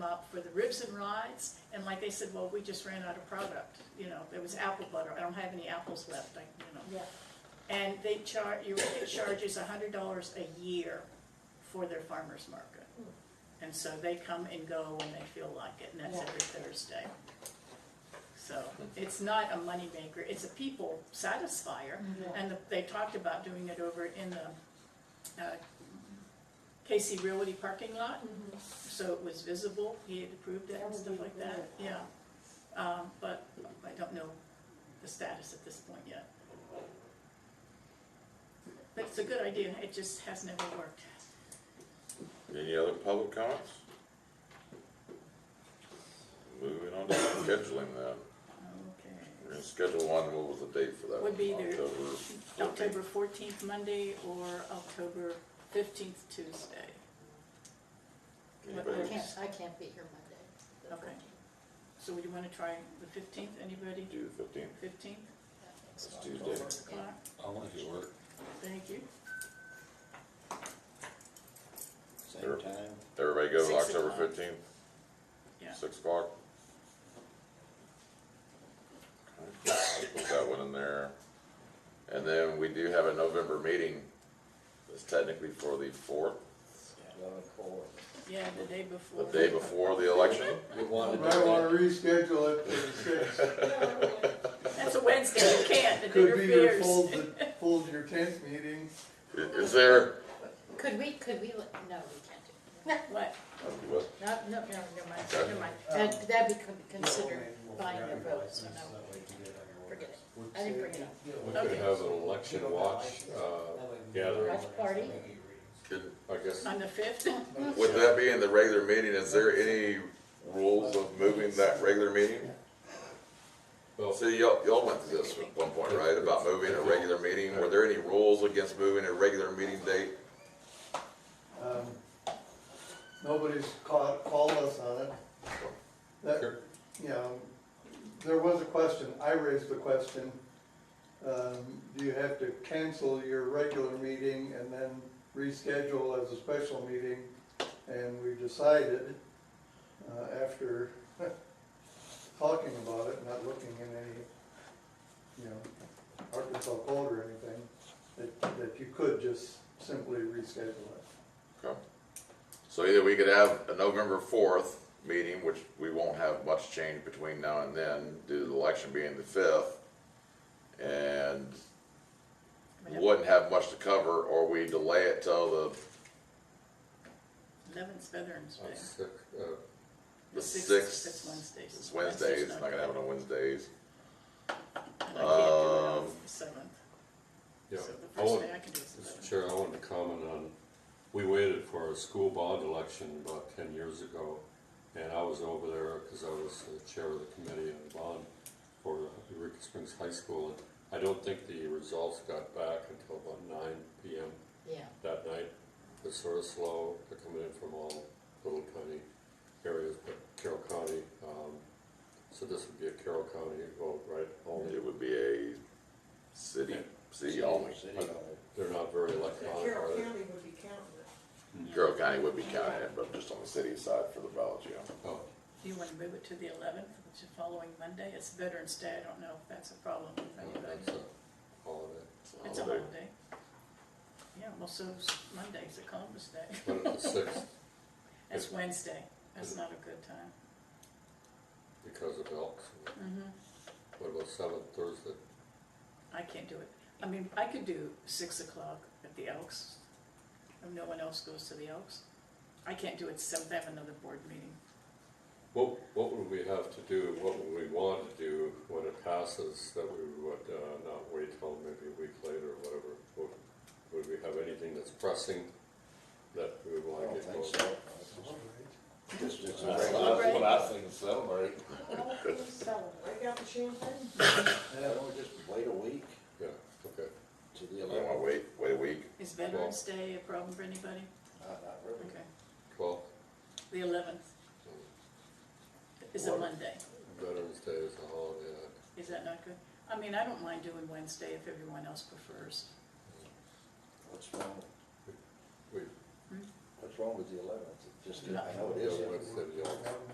for the ribs and rides, and like they said, well, we just ran out of product, you know, there was apple butter, I don't have any apples left, I, you know. Yeah, And they char, Eureka charges a hundred dollars a year for their farmer's market. And so they come and go when they feel like it, and that's Hmm. Yeah. every Thursday. So it's not a moneymaker, it's a people satisfier. Yeah. And they talked about doing it over in the uh, KC Realty parking lot, so it was visible, he had approved it That and would stuff be like that, great. yeah. Um, But I don't know the status at this point yet. But it's a good idea, it just has never worked. Any other public comments? Moving on to scheduling then. We're Okay. gonna schedule one, what was the date for that? Would be one? there- October October fourteenth. fourteenth, Monday, or October fifteenth, Tuesday. I Anybody? can't, I can't be here Monday. the Okay. 14th. So would you wanna try the fifteenth, anybody? Do the fifteenth, Fifteenth, it's Tuesday. o'clock, I'll make it work. thank you. Sure. Same time. Everybody go with Six October o'clock. fifteenth? Yeah. Six o'clock? Okay, Put that one in there. And then we do have a November meeting, that's technically for the fourth, Yeah, the day the before. day before the election. We wanted I might wanna reschedule it for the sixth. That's a Wednesday, you can't, it Could be your interferes. fold, that folds your tenth meeting. I- Is there, Could we, could we, let- no, we can't What? Uh, what, do, no, no, no, never mind, never mind. That, that become considered buying your vote, so no, forget it. I didn't bring it up. We could have an election watch, uh, gathering. Watch party? could- I guess, On the fifth? would that be in the regular meeting, is there any rules of moving that regular meeting? Well, So y'all, y'all went through this at one point, right, about moving a regular meeting, were there any rules against moving a regular meeting date? Um, Nobody's caught, called us on it. That, Sure. you know, there was a question, I raised the question, um, do you have to cancel your regular meeting and then reschedule as a special meeting? And we decided, uh, after talking about it, not looking in any, you know, Arkansas code or anything, that, that you could just simply reschedule it. Okay. So either we could have a November fourth meeting, which we won't have much change between now and then, due to the election being the fifth, and wouldn't have much to cover, or we delay it till the, Eleventh Veterans I'm Day. sick, uh, the sixth, sixth. that's Wednesdays. It's Wednesdays, it's not gonna happen on Wednesdays. And I can't do it on Um, the seventh, yeah. so the I first want- day I can do is the Mr. seventh. Chair, I wanted to comment on, we waited for a school bond election about ten years ago, and I was over there because I was the chair of the committee on bond for Eureka Springs High School, and I don't think the results got back until about nine P M Yeah, that night. It was sort of slow, they're coming in from all little tiny areas, but Carroll County, um, so this would be a Carroll County vote, right? Only, It would be a city, city only. they're not very electronic, Carroll are they? County would be counting it. Carroll County would be counted, but just on the city side for the ballot, yeah. Oh, Do you wanna move it to the eleventh, which is following Monday? It's Veterans Day, I don't know if that's a problem with no, that's anybody. a holiday. It's a Oh, Holiday. holiday. Yeah, well, so's Monday's a Columbus Day. But it's the sixth It's Wednesday, that's not a good time. because of elks. hmm What about seventh Thursday? I can't do it. I mean, I could do six o'clock at the Elks, if no one else goes to the Elks. I can't do it seventh, I have another board meeting. What, what would we have to do, what would we want to do when it passes that we would uh, not wait till maybe a week later or whatever? Would, would we have anything that's pressing that we would want to get going? That's what I think is celebrate. Break out the champagne. Yeah, we'll just wait a week Yeah, okay. to the I don't wanna eleventh. wait, wait a week. Is Veterans Day a problem for anybody? Not, not really. Okay, Twelfth, the eleventh is a What? Monday, Veterans Day is a holiday. I- is that not good? I mean, I don't mind doing Wednesday if everyone else prefers. What's wrong, with- We, what's wrong with the eleventh? Just, I Nothing. know it we is. don't want to say the elks.